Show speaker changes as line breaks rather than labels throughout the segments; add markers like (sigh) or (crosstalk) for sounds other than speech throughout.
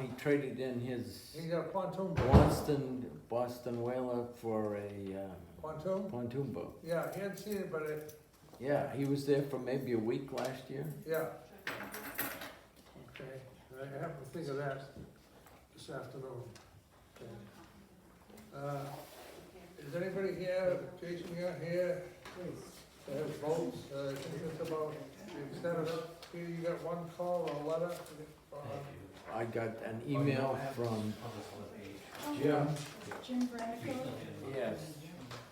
he traded in his
He got a pontoon boat.
Boston, Boston Whaler for a uh,
Pontoon?
pontoon boat.
Yeah, he hadn't seen it, but it,
Yeah, he was there for maybe a week last year.
yeah. Okay, I have to think of that this afternoon. Okay. Uh, Is anybody here, Jason, you're here, that has votes, uh, I think it's about, is that up, Peter, you got one call or a letter? Uh,
I got an email from Jim,
Jim Branico,
yes,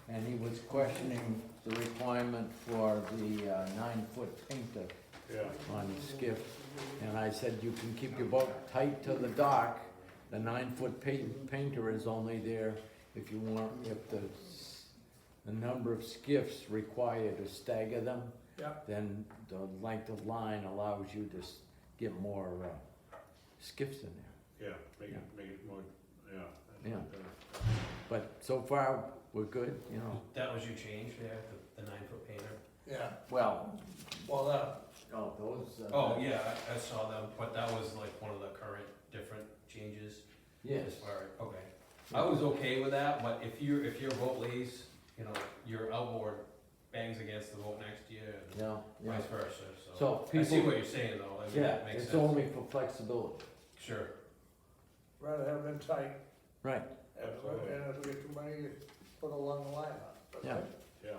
and he was questioning the requirement for the uh, nine-foot painter on the skiff. And I said, you can keep your boat tight to the dock. The nine-foot pa- painter is only there if you want, if the, s- the number of skiffs required to stagger them.
Yeah.
Then the length of line allows you to s- get more, uh, skiffs in there.
Yeah, make it, make it more, yeah. that's
Yeah.
better.
But so far, we're good, you know.
That was your change there, the, the nine foot painter?
Yeah,
Well,
well, uh,
oh, those.
Oh, yeah, I, I saw them, but that was like one of the current different changes.
Yes.
As far, okay. I was okay with that, but if you, if your boat lays, you know, your outboard bangs against the boat next year and
Yeah, yeah.
vice versa, so.
So
I see
people,
what you're saying though, I mean,
yeah,
that makes
it's
sense.
only for flexibility.
Sure,
rather have them tight,
Right,
and if we get too many, put along the line. but-
yeah.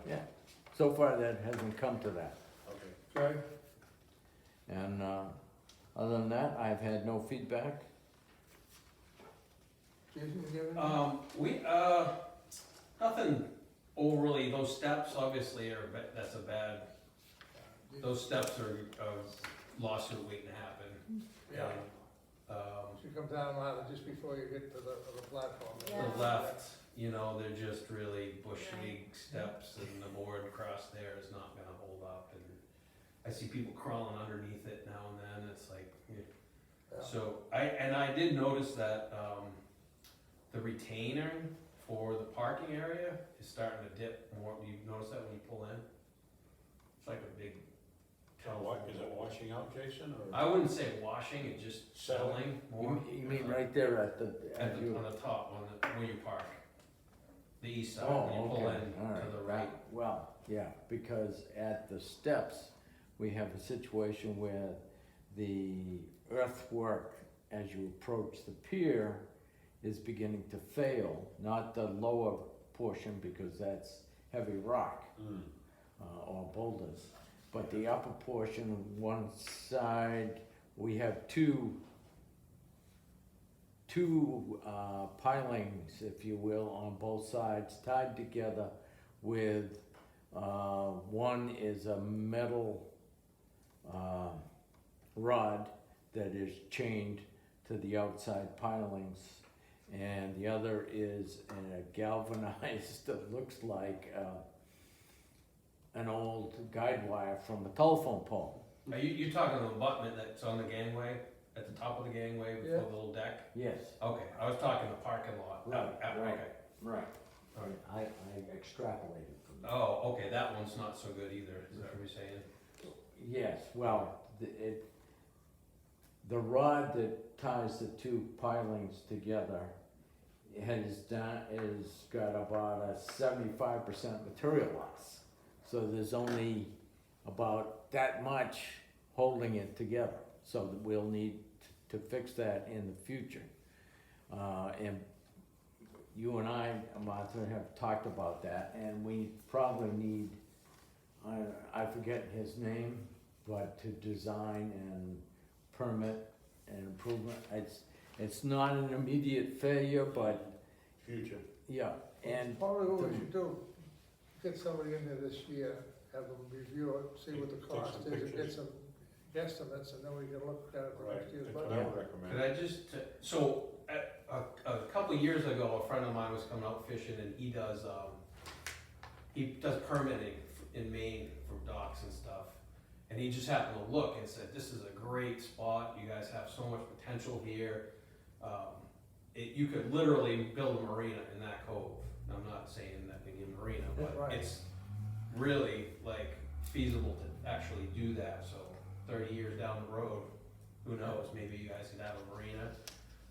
Yeah,
So far, that hasn't come to that.
okay.
Okay,
And uh, other than that, I've had no feedback.
Jason, you give it?
um, we, uh, nothing overly, those steps obviously are, ba- that's a bad, those steps are, a lawsuit waiting to happen.
Yeah.
Um,
She comes down ladder just before you get to the, the platform.
Yeah.
The left, you know, they're just really bush
Yeah.
league steps and the board across there is not gonna hold up and I see people crawling underneath it now and then, it's like, eh.
Yeah.
so, I, and I did notice that, um, the retainer for the parking area is starting to dip more, do you notice that when you pull in? It's like a big.
Now, what, is it washing out, Jason, or
I wouldn't say washing, it's just
Settling.
settling
You
more.
mean- you mean right there at the,
At
at
the,
you?
on the top, on the, where you park, the east side,
Oh,
when you pull
okay,
in
all
to the right.
Well, yeah, because at the steps, we have a situation where the earthwork as you approach the pier is beginning to fail, not the lower portion because that's heavy rock.
Hmm,
uh, or boulders. But the upper portion, one side, we have two, two uh, pilings, if you will, on both sides tied together with, uh, one is a metal uh, rod that is chained to the outside pilings. And the other is a galvanized, (laughs) that looks like uh, an old guide wire from a telephone pole.
Are you, you're talking the abutment that's on the gangway, at the top of the gangway
Yeah.
before the little deck?
Yes.
Okay, I was talking the parking lot. uh,
Right,
uh,
right.
okay.
Right.
All right.
I, I extrapolated from that.
Oh, okay, that one's not so good either, is that what you're saying?
Yes, well, the, it, the rod that ties the two pilings together has done, is got about a seventy-five percent material loss. So there's only about that much holding it together, so that we'll need to fix that in the future. Uh, and you and I, Martha, have talked about that, and we probably need, I, I forget his name, but to design and permit and improvement, it's, it's not an immediate failure, but,
future,
yeah, and,
Probably what we should do, get somebody in there this year, have them review it, see what the
Take some
cost is, and get
pictures.
some guesstimates, and then we can look at it for
right,
next year's
that's what I
budget.
would
Could
recommend.
I just, uh, so, a, a, a couple of years ago, a friend of mine was coming out fishing and he does, um, he does permitting in Maine for docks and stuff. And he just happened to look and said, this is a great spot, you guys have so much potential here. Um, it, you could literally build a marina in that cove. And I'm not saying that we need a marina, but
Right.
it's really like feasible to actually do that, so thirty years down the road, who knows, maybe you guys could have a marina